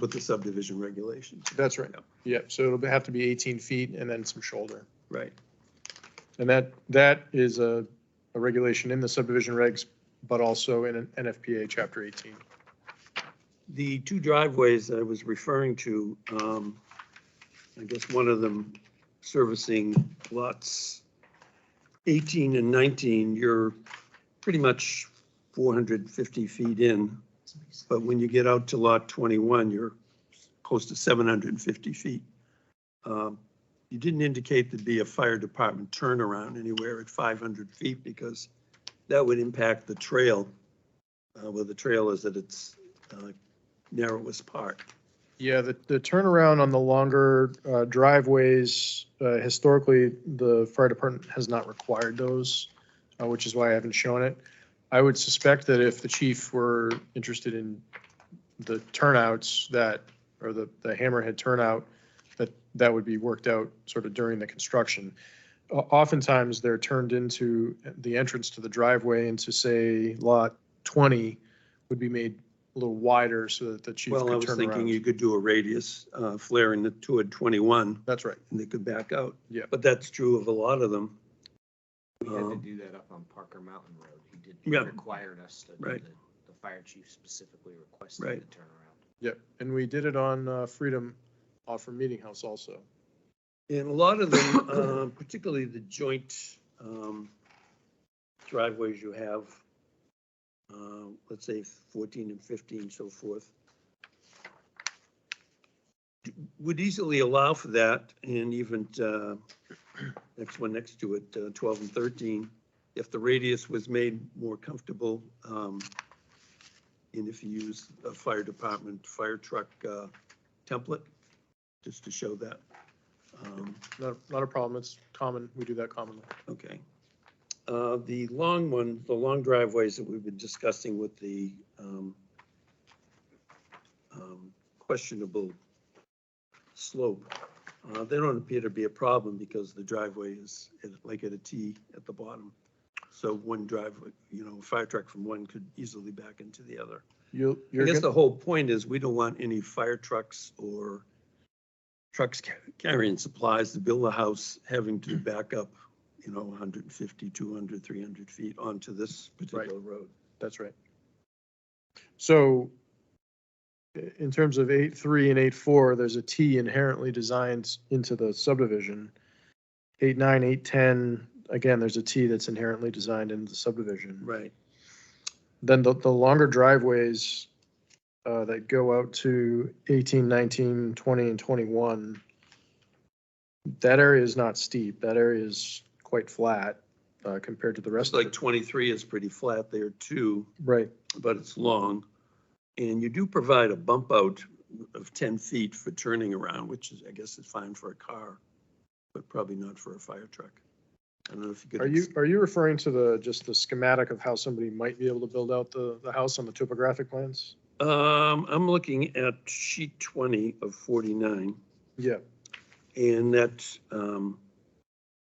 with the subdivision regulations, That's right. Yep. Yep, so it'll have to be 18 feet and then some shoulder. right? And that, that is a, a regulation in the subdivision regs, but also in an NFPA chapter 18. The two driveways I was referring to, um, I guess one of them servicing lots 18 and 19, you're pretty much 450 feet in. But when you get out to lot 21, you're close to 750 feet. Um, You didn't indicate there'd be a fire department turnaround anywhere at 500 feet because that would impact the trail, uh, where the trail is at its uh, narrowest part. Yeah, the, the turnaround on the longer uh, driveways, uh, historically, the fire department has not required those, uh, which is why I haven't shown it. I would suspect that if the chief were interested in the turnouts that, or the, the hammerhead turnout, that, that would be worked out sort of during the construction. O- Oftentimes, they're turned into the entrance to the driveway into, say, lot 20 would be made a little wider so that the chief could turn Well, I around. was thinking you could do a radius uh, flaring it toward 21 That's right. and they could back out. Yeah. But that's true of a lot of them. We had to Um, do that up on Parker Mountain Road. He did, he Yeah. required us to, do Right. the the fire chief specifically requested the Right. turnaround. Yep, and we did it on uh, Freedom off from Meeting House also. And a lot of them, um, particularly the joint um, driveways you have, uh, let's say 14 and 15, so forth, would easily allow for that and even uh, next one next to it, uh, 12 and 13, if the radius was made more comfortable. um, And if you use a fire department, fire truck uh, template, just to show that. Um, Not, not a problem, it's common, we do that commonly. Okay. Uh, The long one, the long driveways that we've been discussing with the um, um, questionable slope, uh, they don't appear to be a problem because the driveway is at- like at a T at the bottom. So one driveway, you know, fire truck from one could easily back into the other. You, I you're, guess the gonna- whole point is we don't want any fire trucks or trucks ca- carrying supplies to build a house having to back up, you know, 150, 200, 300 feet onto this particular road. that's right. So i- in terms of eight, three and eight, four, there's a T inherently designed into the subdivision. Eight, nine, eight, ten, again, there's a T that's inherently designed into the subdivision. Right. Then the, the longer driveways uh, that go out to 18, 19, 20, and 21, that area is not steep. That area is quite flat uh, compared to the rest Just of like it. 23 is pretty flat there too, Right, but it's long. And you do provide a bump out of 10 feet for turning around, which is, I guess is fine for a car, but probably not for a fire truck. I don't know if you could. are you, are you referring to the, just the schematic of how somebody might be able to build out the, the house on the topographic plans? Um, I'm looking at sheet twenty of forty-nine, Yeah, and that's, um,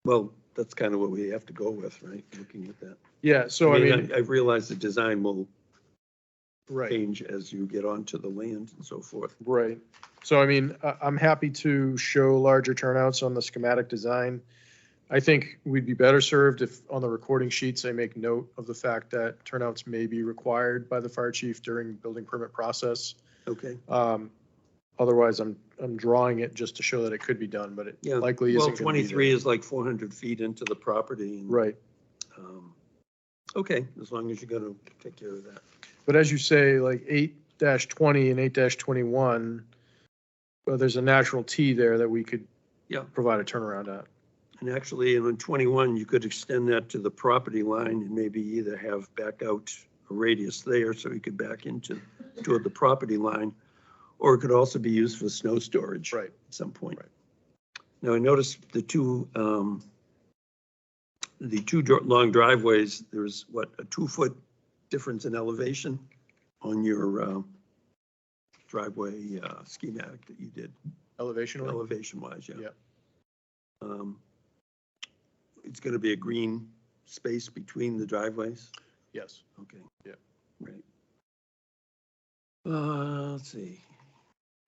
well, that's kind of what we have to go with, right? Looking at that. yeah, so I mean, I realize the design will right. change as you get onto the land and so forth. Right. So I mean, I, I'm happy to show larger turnouts on the schematic design. I think we'd be better served if on the recording sheets, they make note of the fact that turnouts may be required by the fire chief during building permit process. Okay, Um, Otherwise, I'm, I'm drawing it just to show that it could be done, but it yeah. likely Well, isn't. gonna be twenty-three there. is like four hundred feet into the property. and, Right. um, Okay, as long as you're gonna take care of that. But as you say, like eight dash twenty and eight dash twenty-one, well, there's a natural T there that we could Yeah. provide a turnaround at. And actually, in 21, you could extend that to the property line and maybe either have back out a radius there so you could back into, toward the property line. Or it could also be used for snow storage. Right. At some point. Right. Now, I noticed the two, um, the two dr- long driveways, there's what, a two-foot difference in elevation on your uh, driveway uh, schematic that you did Elevation. only? elevation wise, yeah. Yeah. Um, It's gonna be a green space between the driveways, Yes. okay? Yeah. Right. Uh, let's see,